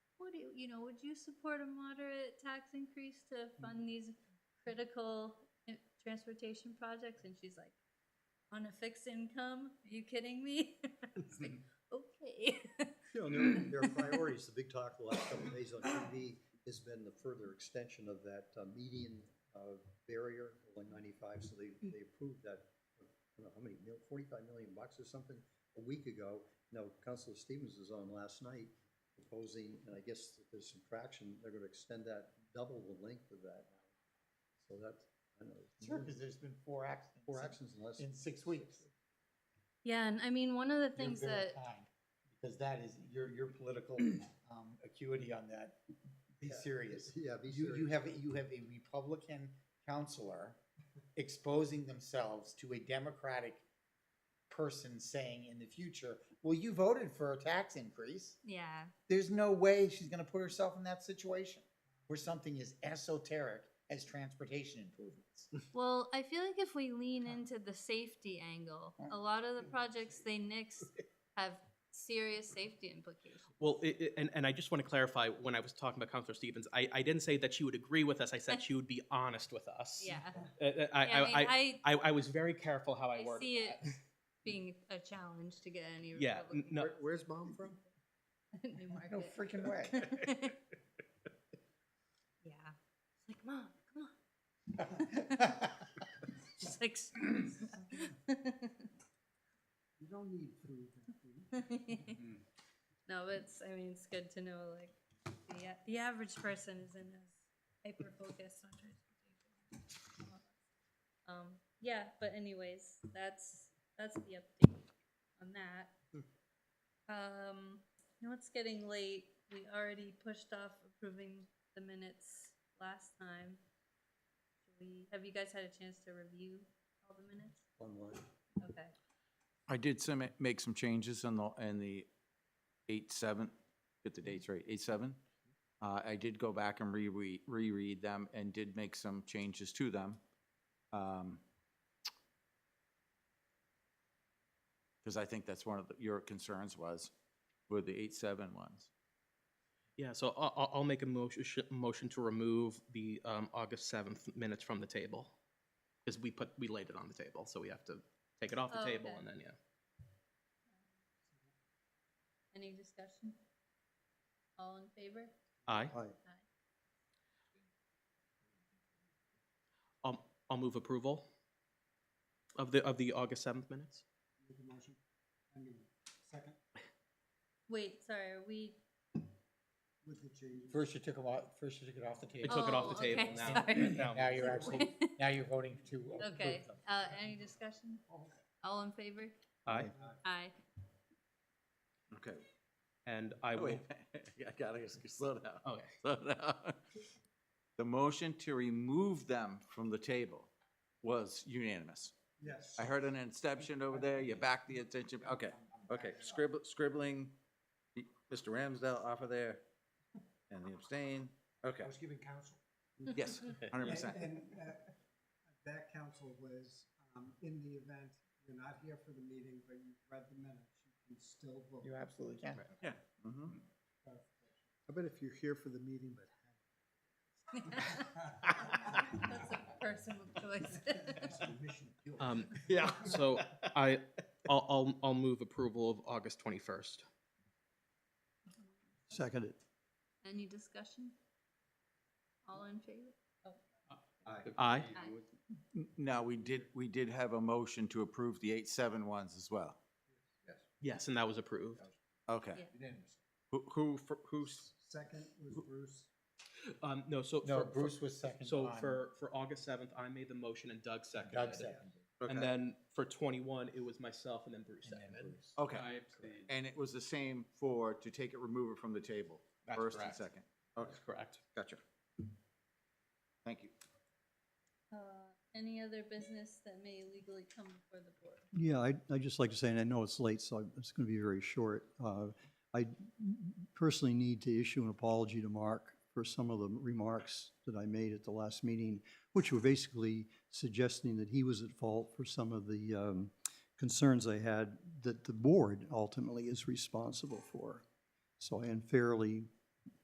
you know, would you support a moderate tax increase to Mm-hmm. fund these critical i- transportation projects? And she's like, on a fixed income? Are you kidding me? It's like, okay. You know, there, there are priorities. The big talk the last couple of days on TV has been the further extension of that uh, median uh, barrier, one ninety-five, so they, they approved that, uh, I don't know how many, mil- forty-five million bucks or something a week ago. Now, Councilor Stevens was on last night proposing, and I guess that there's some traction, they're gonna extend that, double the length of that. So that's, I don't know. Sure, because there's been four accidents. Mm-hmm. Four in- actions in less. In six weeks. Yeah, and I mean, one of the You're things very that, kind, Because that is, your, your political um, acuity on that, be Yeah. serious. Yeah, be You, serious. you have, you have a Republican counselor exposing themselves to a Democratic person saying in the future, well, you voted for a tax increase. yeah, There's no way she's gonna put herself in that situation where something as esoteric as transportation improvements. well, I feel like if we lean into the safety angle, a lot of the projects they nix have serious safety implications. Well, i i and, and I just want to clarify, when I was talking about Counselor Stevens, I, I didn't say that she would agree with us, I said she would be honest with us. Yeah. Uh, uh, I, Yeah, mean, I, I, I, I was very careful how I I worded see it that. being a challenge to get any Yeah, n- Republican no. Where- Where's mom from? new market. No freaking way. yeah. It's like, mom, come on. She's like, You don't need food. no, but it's, I mean, it's good to know, like, the, a- the average person isn't as hyper focused on transportation. Um, yeah, but anyways, that's, that's the update on that. Um, you know, it's getting late. We already pushed off approving the minutes last time. Should We, have you guys had a chance to review all the minutes? Online. Okay. I did some, make some changes on the, in the eight, seven, get the dates right, eight, seven. Uh, I did go back and reread, reread them and did make some changes to them. Um, Cause I think that's one of the- your concerns was, were the eight, seven ones. Yeah, so I'll, I'll- I'll make a motion, sh- motion to remove the, um, August seventh minutes from the table. Because we put, we laid it on the table, so we have to take it off Oh, the table okay. and then, yeah. Any discussion? All in favor? Aye, Hi. I'll, I'll move approval of the, of the August seventh minutes. Wait, sorry, are we? First you took them off, first you took it off the table. I took it off Oh, the table, okay, now, sorry. now. Now you're actually, now you're voting to approve them. Okay, uh, any discussion? All in favor? Aye, Aye. Okay. and I will, Oh, Oh, Wait, I gotta s- slow down. okay. So now, The motion to remove them from the table was unanimous. Yes. I heard an abstention over there, you backed the abstention, okay, okay, scribble, scribbling, Mr. Ramsdale off of there, and the abstain, okay, I was giving counsel. yes, hundred percent. And uh, that counsel was, um, in the event you're not here for the meeting, but you've read the minutes, you can still vote. You absolutely can. Yeah. mhm. I bet if you're here for the meeting, but. That's a personal choice. Um, Yeah. So I, I'll, I'll, I'll move approval of August twenty-first. Seconded. Any discussion? All in favor? Oh, Aye. aye. Now, we did, we did have a motion to approve the eight, seven ones as well, Yes, and that was approved. okay. Yeah. Who, who, fir- who's, Second was Bruce. Um, no, so. No, for- for- Bruce was second So on- for, for August seventh, I made the motion and Doug seconded. Doug seconded. okay. And then for twenty-one, it was myself and then Bruce and then seconded. Bruce. Okay. And it was the same for, to take it, remove it from the table, That's first and correct. second. Okay, That's correct. gotcha. Thank you. Uh, Any other business that may legally come before the board? Yeah, I, I'd just like to say, and I know it's late, so I'm- it's going to be very short. uh, I personally need to issue an apology to Mark for some of the remarks that I made at the last meeting, which were basically suggesting that he was at fault for some of the um, concerns I had that the board ultimately is responsible for. So I unfairly